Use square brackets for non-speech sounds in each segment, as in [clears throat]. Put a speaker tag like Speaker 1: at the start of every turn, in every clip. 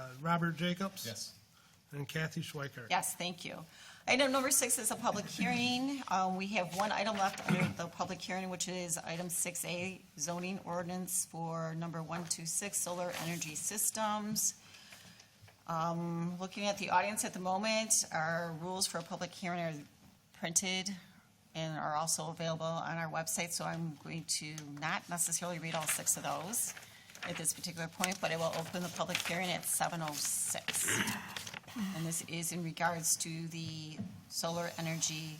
Speaker 1: Uh, Robert Jacobs?
Speaker 2: Yes.
Speaker 1: And Kathy Schweiker?
Speaker 3: Yes, thank you. Item number six is a public hearing. Uh, We have one item left under the public hearing, which is item six A, zoning ordinance for number one two six, solar energy systems. Um, Looking at the audience at the moment, our rules for a public hearing are printed and are also available on our website, so I'm going to not necessarily read all six of those at this particular point, but I will open the public hearing at seven oh six. And this is in regards to the solar energy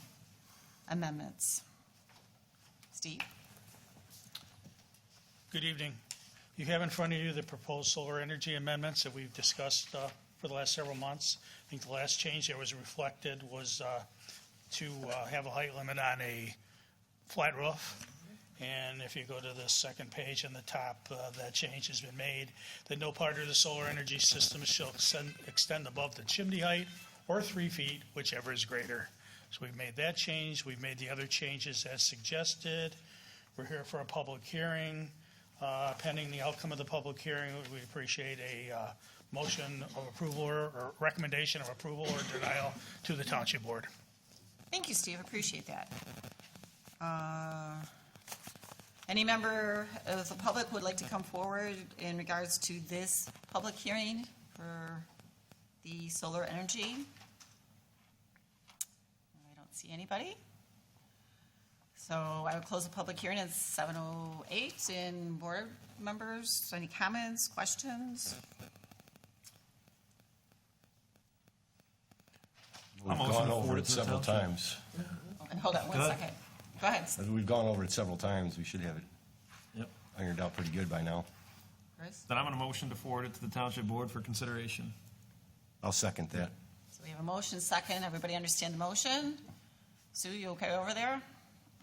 Speaker 3: amendments. Steve?
Speaker 4: Good evening. You have in front of you the proposed solar energy amendments that we've discussed uh, for the last several months. I think the last change that was reflected was uh, to uh, have a height limit on a flat roof. And if you go to the second page on the top, uh, that change has been made, that no part of the solar energy system shall extend- extend above the chimney height or three feet, whichever is greater. So we've made that change, we've made the other changes as suggested. We're here for a public hearing. Uh, Pending the outcome of the public hearing, we appreciate a uh, motion of approval or or recommendation of approval or denial to the Township Board.
Speaker 3: Thank you, Steve, appreciate that. Uh, Any member of the public would like to come forward in regards to this public hearing for the solar energy? I don't see anybody. So I will close the public hearing at 7:08. And board members, any comments, questions?
Speaker 5: We've
Speaker 2: motion
Speaker 5: gone
Speaker 2: to
Speaker 5: over
Speaker 2: forward
Speaker 5: it
Speaker 2: to the
Speaker 5: several
Speaker 2: township.
Speaker 5: times.
Speaker 3: And hold on one
Speaker 2: Go ahead.
Speaker 3: second. Go ahead.
Speaker 5: As We've gone over it several times. We should have it
Speaker 2: Yep.
Speaker 5: ironed out pretty good by now.
Speaker 3: Chris.
Speaker 2: Then I'm going to motion to forward it to the township board for consideration.
Speaker 5: I'll second that.
Speaker 3: So we have a motion, second. Everybody understand the motion? Sue, you okay over there?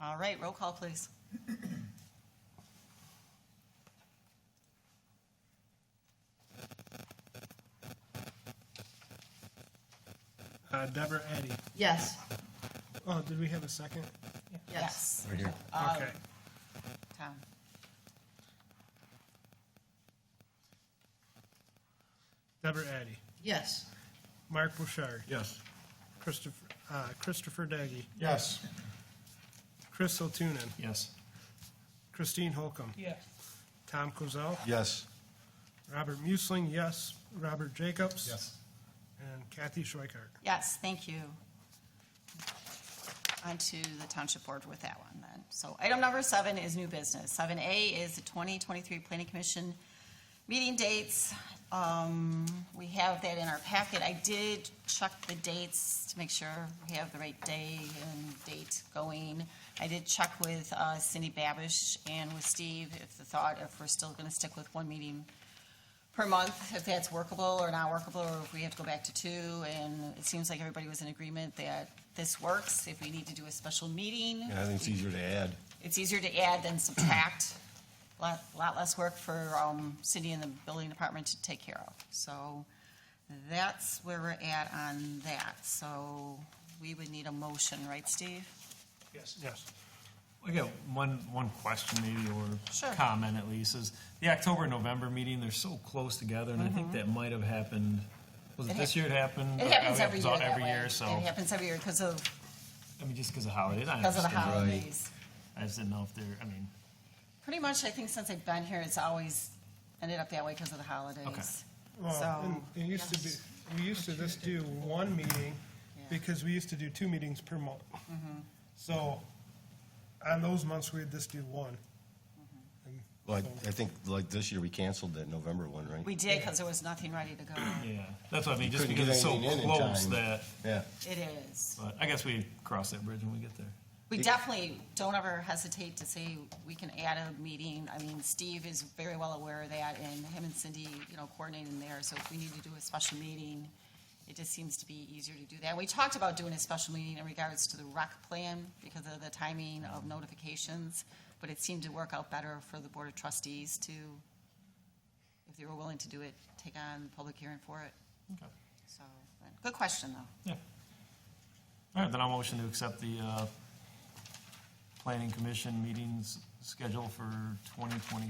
Speaker 3: All right, roll call, please.
Speaker 1: Uh, Deborah Addy.
Speaker 6: Yes,
Speaker 1: Oh, did we have a second?
Speaker 6: yes.
Speaker 5: Right here.
Speaker 1: Okay.
Speaker 3: Tom.
Speaker 1: Deborah Addy.
Speaker 6: Yes.
Speaker 1: Mark Bouchard.
Speaker 2: Yes.
Speaker 1: Christopher, uh, Christopher Daggy.
Speaker 2: Yes.
Speaker 1: Chris Otunin.
Speaker 2: Yes.
Speaker 1: Christine Holcomb.
Speaker 4: Yes.
Speaker 1: Tom Kozel.
Speaker 5: Yes.
Speaker 1: Robert Muesling, yes. Robert Jacobs. And Kathy Schweikart.
Speaker 3: Yes, thank you. On to the township board with that one then. So item number seven is new business. Seven A is the twenty twenty-three planning commission meeting dates. Um, we have that in our packet. I did check the dates to make sure we have the right day and date going. I did check with uh, Cindy Babish and with Steve if the thought, if we're still gonna stick with one meeting per month, if that's workable or not workable, or if we have to go back to two, and it seems like everybody was in agreement that this works, if we need to do a special meeting.
Speaker 5: Yeah, I think it's easier to add.
Speaker 3: It's easier to add than subtract, lot, lot less work for, um, city and the building department to take care of. So that's where we're at on that, so we would need a motion, right, Steve?
Speaker 4: Yes.
Speaker 1: Yes.
Speaker 2: I got one, one question maybe,
Speaker 3: Sure.
Speaker 2: or comment at least, is the October, November meeting, they're so close together, and I think that might have happened, was
Speaker 3: Mm-hmm. It
Speaker 2: it
Speaker 3: hap-
Speaker 2: this year it happened?
Speaker 3: It happens
Speaker 2: Oh,
Speaker 3: every year
Speaker 2: all-
Speaker 3: that
Speaker 2: Every
Speaker 3: way.
Speaker 2: year, so,
Speaker 3: It happens every year because of,
Speaker 2: I mean, just because of holidays, I
Speaker 3: because of the
Speaker 2: understand.
Speaker 3: holidays.
Speaker 2: I just didn't know if they're, I mean,
Speaker 3: Pretty much, I think since I've been here, it's always ended up that way because of the holidays.
Speaker 1: Well,
Speaker 3: So,
Speaker 1: and it used to be, we used to just do one meeting,
Speaker 3: Yeah. Mm-hmm.
Speaker 1: because we used to do two meetings per month. So, on those months, we'd just do one. And
Speaker 5: Well,
Speaker 1: so-
Speaker 5: I- I think like this year, we canceled that November one, right?
Speaker 3: we did because there was nothing ready
Speaker 2: [clears throat]
Speaker 3: to go.
Speaker 2: yeah, that's what I mean, just
Speaker 5: Couldn't
Speaker 2: because
Speaker 5: get
Speaker 2: it's so
Speaker 5: anything in in
Speaker 2: close
Speaker 5: time.
Speaker 2: that,
Speaker 5: Yeah.
Speaker 3: It is.
Speaker 2: but I guess we cross that bridge when we get there.
Speaker 3: We definitely don't ever hesitate to say we can add a meeting. I mean, Steve is very well aware of that and him and Cindy, you know, coordinating there. So if we need to do a special meeting, it just seems to be easier to do that. We talked about doing a special meeting in regards to the rec plan because of the timing of notifications. But it seemed to work out better for the Board of Trustees to, if they were willing to do it, take on the public hearing for it.
Speaker 2: Okay.
Speaker 3: So, but good question though.
Speaker 2: Yeah. All right, then I'll motion to accept the uh, Planning Commission meetings schedule for 2023.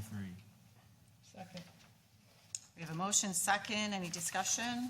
Speaker 3: We have a motion second. Any discussion?